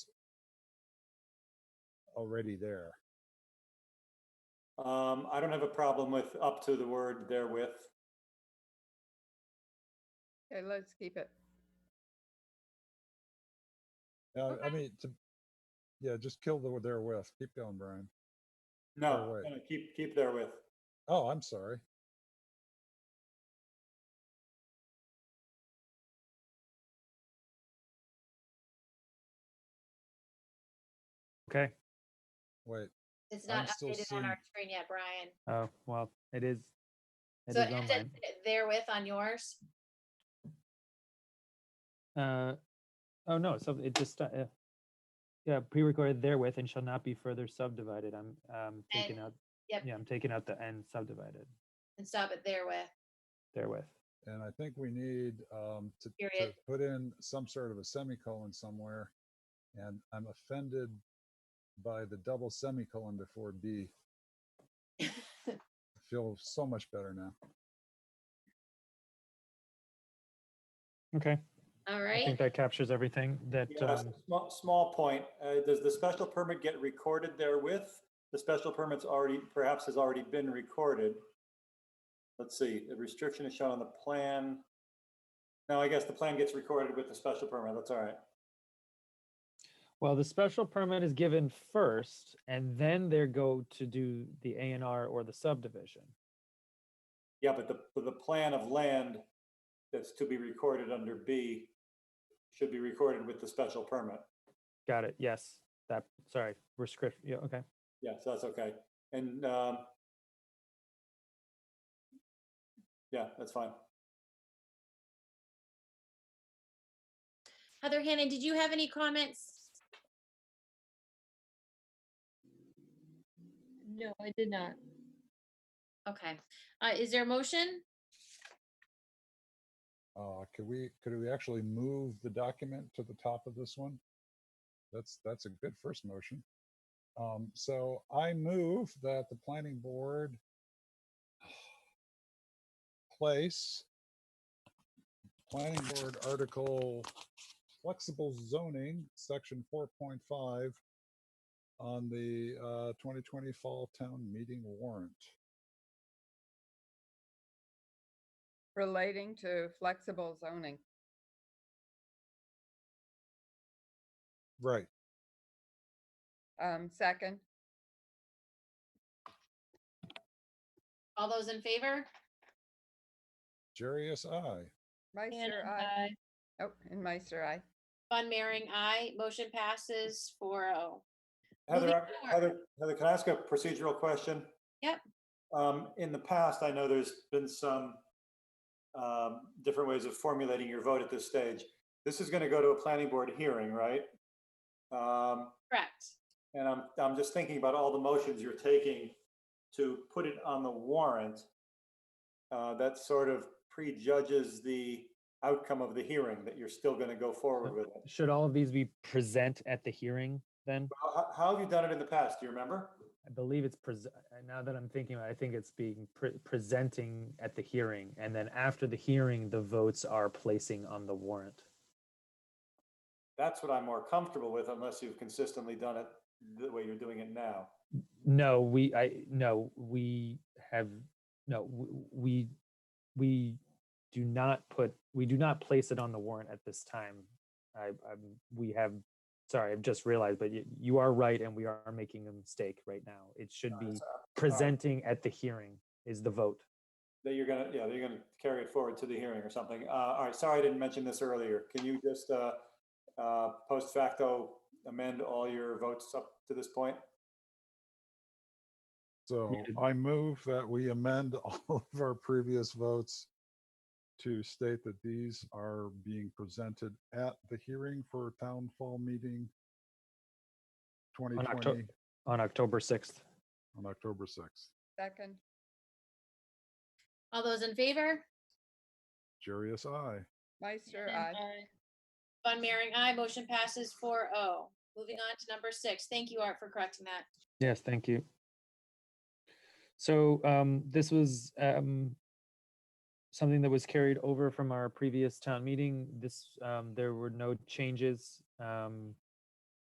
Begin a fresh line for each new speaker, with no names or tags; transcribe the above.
already there.
Um, I don't have a problem with up to the word therewith.
Okay, let's keep it.
Uh, I
Okay.
mean, to, yeah, just kill the therewith. Keep going, Brian.
No,
Therewith.
no, keep, keep therewith.
Oh, I'm sorry.
Okay.
Wait,
It's
I'm
not
still
updated on
seeing-
our screen yet, Brian.
Oh, well, it is. it
So
is
it ends
online.
at therewith on yours.
Uh, oh, no, so it just, uh, uh, yeah, pre-recorded therewith and shall not be further subdivided. I'm, um, taking
And-
out,
yep.
yeah, I'm taking out the end subdivided
And stop it therewith.
therewith.
and I think we need um, to, to
Period.
put in some sort of a semicolon somewhere. And I'm offended by the double semicolon before B. I feel so much better now.
Okay,
All
I
right.
think that captures everything that,
Yeah,
um,
s- small, small point. Uh, does the special permit get recorded therewith? The special permit's already, perhaps has already been recorded. Let's see, the restriction is shown on the plan. No, I guess the plan gets recorded with the special permit. That's all right.
well, the special permit is given first and then they go to do the A and R or the subdivision.
Yeah, but the, but the plan of land that's to be recorded under B should be recorded with the special permit.
Got it, yes, that, sorry, we're script, yeah, okay.
Yeah, so that's okay. And, um, yeah, that's fine.
Heather Hannon, did you have any comments?
No, I did not.
Okay. Uh, is there a motion?
Uh, could we, could we actually move the document to the top of this one? That's, that's a good first motion. Um, so I move that the planning board place planning board article flexible zoning, section four point five on the, uh, twenty twenty fall town meeting warrant.
Relating to flexible zoning.
Right.
Um, second,
All those in favor?
Jarius, I.
Meister,
Hannon,
I.
aye.
Oh, and Meister, I.
Von Mering, aye. Motion passes oh. 4-0. Moving
Heather, I-
forward.
Heather, Heather, can I ask a procedural question?
Yep.
Um, in the past, I know there's been some um, different ways of formulating your vote at this stage. This is going to go to a planning board hearing, right? Um,
Correct.
And I'm, I'm just thinking about all the motions you're taking to put it on the warrant. Uh, That sort of prejudges the outcome of the hearing, that you're still going to go forward with it.
Should all of these be present at the hearing then?
How- How, how have you done it in the past? Do you remember?
I believe it's pres- uh, now that I'm thinking about it, I think it's being pre- presenting at the hearing and then after the hearing the votes are placing on the warrant.
That's what I'm more comfortable with unless you've consistently done it the way you're doing it now.
No, we I no, we have no w- we we do not put we do not place it on the warrant at this time. I I'm, we have sorry, I've just realized but you, you are right and we are making a mistake right now. It should be presenting at the hearing is the vote.
That you're gonna, yeah, that you're gonna carry it forward to the hearing or something. Uh, All right, sorry I didn't mention this earlier. Can you just uh, uh, post facto amend all your votes up to this point?
So
did-
I move that we amend all of our previous votes to state that these are being presented at the hearing for town fall meeting
Octo-
2020
on October 6th.
on October 6th.
Second,
All those in favor?
Jarius, I.
Meister, I.
Hannon, aye.
Von Mering, aye. Motion passes 4-0. Moving on to number six. Thank you, Art, for correcting that.
Yes, thank you. So um, this was um, something that was carried over from our previous town meeting. This, um, there were no changes. Um,